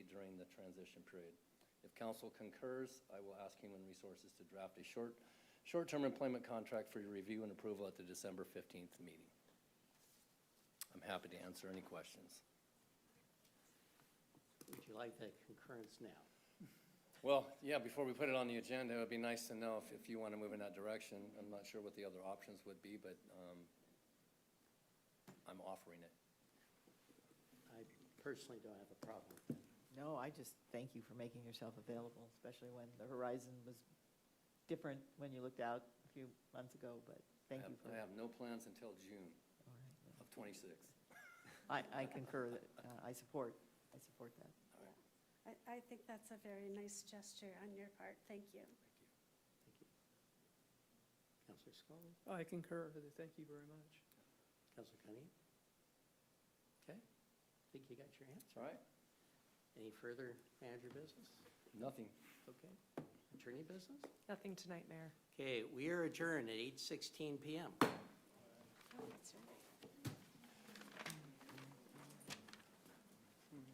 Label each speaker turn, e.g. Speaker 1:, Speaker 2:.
Speaker 1: transition period. If council concurs, I will ask Human Resources to draft a short, short-term employment contract for your review and approval at the December 15th meeting. I'm happy to answer any questions.
Speaker 2: Would you like that concurrence now?
Speaker 1: Well, yeah, before we put it on the agenda, it would be nice to know if, if you want to move in that direction. I'm not sure what the other options would be, but, um, I'm offering it.
Speaker 2: I personally don't have a problem with that.
Speaker 3: No, I just thank you for making yourself available, especially when the horizon was different when you looked out a few months ago,
Speaker 1: I
Speaker 3: but thank
Speaker 1: have-
Speaker 3: you for.
Speaker 1: I have no plans until June
Speaker 3: all right.
Speaker 1: of twenty-six.
Speaker 3: I, I concur that, uh, I support, I support that.
Speaker 4: I, I think that's a very nice gesture on your part. Thank you.
Speaker 2: Counselor Scully,
Speaker 5: Oh, I concur with it. Thank you very much.
Speaker 2: Counselor Cunningham? Okay, think you got your answer.
Speaker 1: All right,
Speaker 2: Any further manager business?
Speaker 1: nothing.
Speaker 2: Okay. Attorney business?
Speaker 6: Nothing tonight, Mayor.
Speaker 2: Okay, we are adjourned at 8:16 PM.
Speaker 4: Oh, that's right.